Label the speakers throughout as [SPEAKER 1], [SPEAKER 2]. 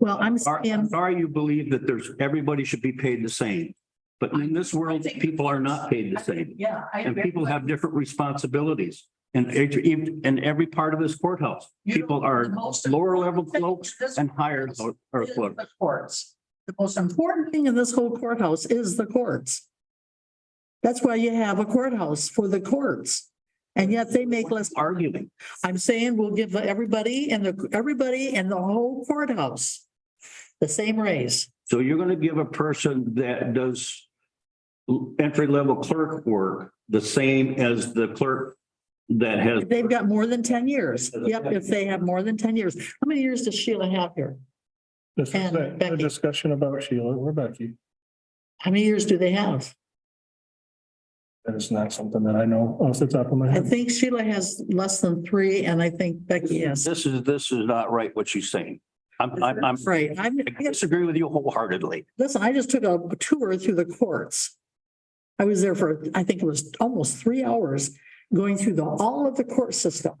[SPEAKER 1] Well, I'm
[SPEAKER 2] Are,
[SPEAKER 1] saying,
[SPEAKER 2] are you believe that there's, everybody should be paid the same, but in this world, people are not paid the same.
[SPEAKER 3] Yeah. I-
[SPEAKER 2] And people have different responsibilities and in every part of this courthouse.
[SPEAKER 3] You know,
[SPEAKER 2] People
[SPEAKER 3] the
[SPEAKER 2] are
[SPEAKER 3] most
[SPEAKER 2] lower level
[SPEAKER 3] important thing
[SPEAKER 2] folks
[SPEAKER 3] this
[SPEAKER 2] and higher lo- or
[SPEAKER 3] is
[SPEAKER 2] folks.
[SPEAKER 3] The courts, the most important
[SPEAKER 1] important thing in this whole courthouse is the courts. That's why you have a courthouse for the courts. And yet they make less
[SPEAKER 2] arguing.
[SPEAKER 1] I'm saying we'll give everybody and the, everybody and the whole courthouse the same raise.
[SPEAKER 2] So you're gonna give a person that does entry level clerk work the same as the clerk that has.
[SPEAKER 1] If They've got more than ten years. Yep, if they have more than ten years. How many years does Sheila have here?
[SPEAKER 4] This is
[SPEAKER 1] And
[SPEAKER 4] a- a
[SPEAKER 1] Becky.
[SPEAKER 4] discussion about Sheila or Becky.
[SPEAKER 1] How many years do they have?
[SPEAKER 4] That is not something that I know off the top of my
[SPEAKER 1] I
[SPEAKER 4] head.
[SPEAKER 1] think Sheila has less than three and I think Becky has.
[SPEAKER 2] This is, this is not right what she's saying. I'm, I'm, I'm,
[SPEAKER 1] Right, I'm,
[SPEAKER 2] I disagree with you wholeheartedly.
[SPEAKER 1] listen, I just took a tour through the courts. I was there for, I think it was almost three hours going through the, all of the court system.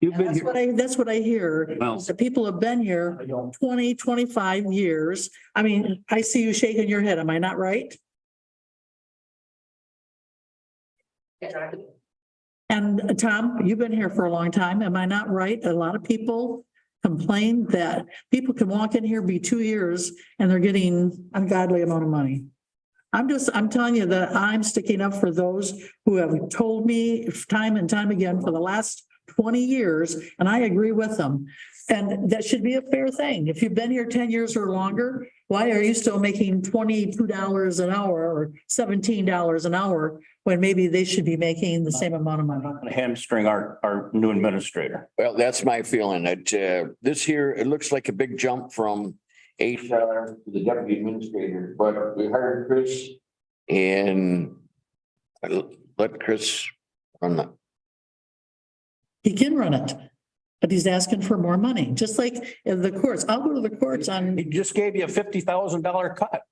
[SPEAKER 2] You've
[SPEAKER 1] And
[SPEAKER 2] been
[SPEAKER 1] that's
[SPEAKER 2] here.
[SPEAKER 1] what I, that's what I hear.
[SPEAKER 2] Well-
[SPEAKER 1] The people have been here 20, 25 years. I mean, I see you shaking your head. Am I not right? And uh, Tom, you've been here for a long time. Am I not right? A lot of people complain that people can walk in here, be two years, and they're getting ungodly amount of money. I'm just, I'm telling you that I'm sticking up for those who have told me time and time again for the last twenty years, and I agree with them. And that should be a fair thing. If you've been here ten years or longer, why are you still making twenty-two dollars an hour or seventeen dollars an hour when maybe they should be making the same amount of money?
[SPEAKER 2] hamstring our, our new administrator.
[SPEAKER 5] Well, that's my feeling. It, uh, this here, it looks like a big jump from HR to the deputy administrator, but we hired Chris and I let Chris run the,
[SPEAKER 1] He can run it, but he's asking for more money, just like in the courts. I'll go to the courts
[SPEAKER 2] He
[SPEAKER 1] on,
[SPEAKER 2] just gave you a fifty thousand dollar cut.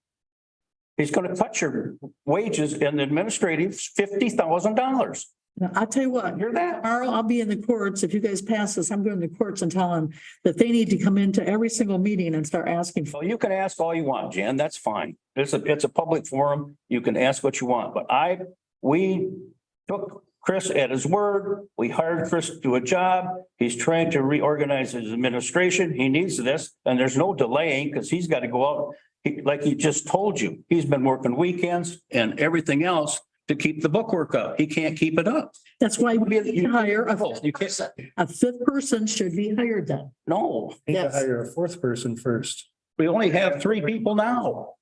[SPEAKER 2] He's gonna cut your wages and administrative fifty thousand dollars.
[SPEAKER 1] I'll tell you what.
[SPEAKER 2] Hear that?
[SPEAKER 1] Tomorrow I'll be in the courts. If you guys pass this, I'm going to the courts and tell them that they need to come into every single meeting and start asking for.
[SPEAKER 2] Well, you can ask all you want, Jan, that's fine. It's a, it's a public forum, you can ask what you want, but I, we took Chris at his word, we hired Chris to do a job, he's trying to reorganize his administration, he needs this, and there's no delaying, because he's got to go out. He- Like he just told you, he's been working weekends and everything else to keep the bookwork up, he can't keep it up.
[SPEAKER 1] That's why we
[SPEAKER 2] You-
[SPEAKER 1] hire a,
[SPEAKER 2] You can't,
[SPEAKER 1] a fifth person should be hired then.
[SPEAKER 2] no,
[SPEAKER 4] Need to
[SPEAKER 1] Yes.
[SPEAKER 4] hire a fourth person first.
[SPEAKER 2] we only have three people now.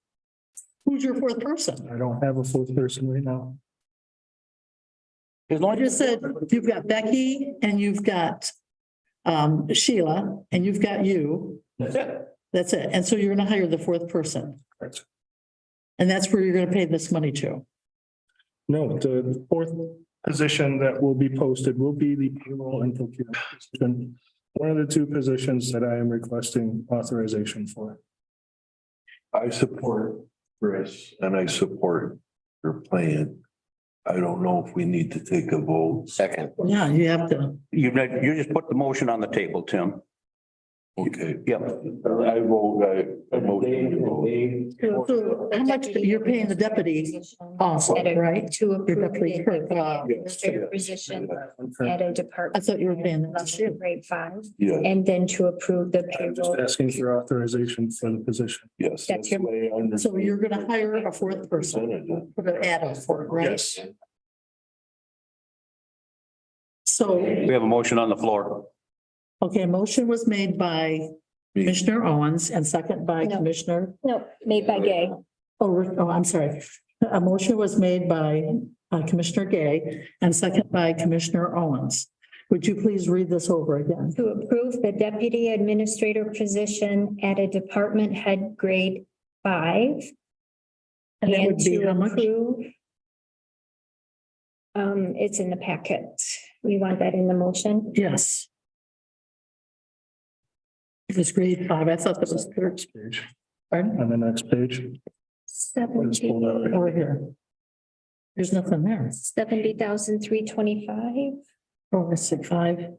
[SPEAKER 1] Who's your fourth person?
[SPEAKER 4] I don't have a fourth person right now.
[SPEAKER 2] As long
[SPEAKER 1] I
[SPEAKER 2] as-
[SPEAKER 1] just said, you've got Becky and you've got um, Sheila and you've got you.
[SPEAKER 2] That's it.
[SPEAKER 1] That's it. And so you're going to hire the fourth person.
[SPEAKER 4] Correct.
[SPEAKER 1] And that's where you're going to pay this money to.
[SPEAKER 4] No, the fourth position that will be posted will be the payroll and procurement position. One of the two positions that I am requesting authorization for.
[SPEAKER 6] I support Chris and I support your plan. I don't know if we need to take a vote.
[SPEAKER 5] second.
[SPEAKER 1] Yeah, you have to.
[SPEAKER 2] You've, not- you just put the motion on the table, Tim.
[SPEAKER 6] Okay.
[SPEAKER 2] Yep.
[SPEAKER 6] I vote, I, I motion to vote.
[SPEAKER 1] So how much you're paying the deputy also, right?
[SPEAKER 7] To
[SPEAKER 1] Your
[SPEAKER 7] approve
[SPEAKER 1] deputy clerk, uh,
[SPEAKER 7] the administrative position at a department.
[SPEAKER 1] I thought you were paying that this year.
[SPEAKER 7] Grade five,
[SPEAKER 6] Yeah,
[SPEAKER 7] and then to approve the
[SPEAKER 4] I'm just
[SPEAKER 7] payroll.
[SPEAKER 4] asking for authorization for the position.
[SPEAKER 6] yes.
[SPEAKER 7] That's your-
[SPEAKER 6] the way I
[SPEAKER 1] So
[SPEAKER 6] understand
[SPEAKER 1] you're gonna hire a fourth person,
[SPEAKER 6] it.
[SPEAKER 1] put an ad up for it, right?
[SPEAKER 4] Yes.
[SPEAKER 1] So,
[SPEAKER 2] We have a motion on the floor.
[SPEAKER 1] okay, motion was made by
[SPEAKER 6] Me.
[SPEAKER 1] Commissioner Owens and second by
[SPEAKER 7] No.
[SPEAKER 1] Commissioner,
[SPEAKER 7] No, made by Gay.
[SPEAKER 1] oh, Rick- oh, I'm sorry. A motion was made by uh, Commissioner Gay and second by Commissioner Owens. Would you please read this over again?
[SPEAKER 7] To approve the deputy administrator position at a department head grade five.
[SPEAKER 1] And that would be
[SPEAKER 7] to
[SPEAKER 1] how much?
[SPEAKER 7] approve- Um, it's in the packet. You want that in the motion?
[SPEAKER 1] Yes. It was grade five. I thought that was third.
[SPEAKER 4] Page.
[SPEAKER 1] Pardon?
[SPEAKER 4] On the next page. Let's pull
[SPEAKER 7] Seventy,
[SPEAKER 4] that right.
[SPEAKER 1] Over here. There's nothing there.
[SPEAKER 7] seventy thousand three twenty-five.
[SPEAKER 1] Four, six, five.